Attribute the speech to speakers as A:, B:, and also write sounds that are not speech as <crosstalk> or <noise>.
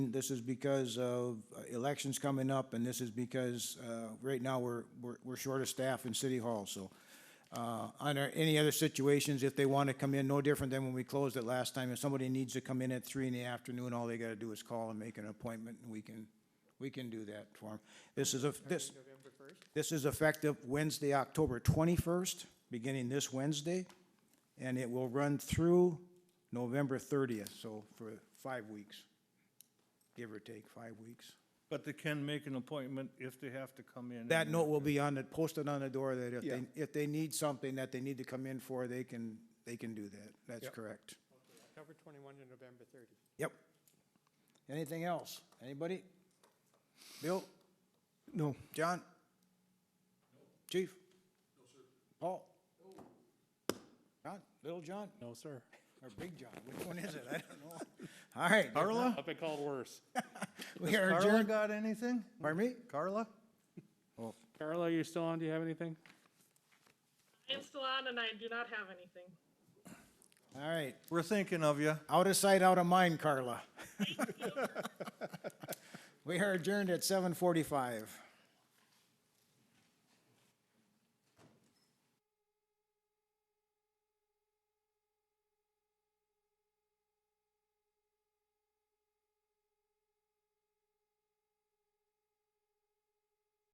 A: This is because of uh, elections coming up, and this is because, uh, right now, we're, we're, we're short of staff in City Hall, so. Uh, under any other situations, if they want to come in, no different than when we closed it last time, if somebody needs to come in at three in the afternoon, all they gotta do is call and make an appointment, and we can, we can do that for them. This is a, this. This is effective Wednesday, October 21st, beginning this Wednesday, and it will run through November 30th, so for five weeks, give or take five weeks.
B: But they can make an appointment if they have to come in.
A: That
B: and-
A: note will be on it, posted on the door that if they,
C: Yeah.
A: if they need something that they need to come in for, they can, they can do that. That's
C: Yep.
A: correct.
C: October 21 to November 30.
A: Yep. Anything else? Anybody? Bill?
C: No.
A: John? Chief? No, sir. Paul? John? Little John?
D: No, sir.
A: Or Big John? Which one is it? I don't know. <laughs> All right. Carla?
D: I've been called worse.
A: We are
B: Carla
A: adjourned.
B: got anything?
A: Pardon me?
B: Carla?
D: Carla, you still on? Do you have anything?
E: I'm still on and I do not have anything.
A: All right.
B: We're thinking of you.
A: Out of sight, out of mind, <laughs> Carla. We are adjourned at seven forty-five.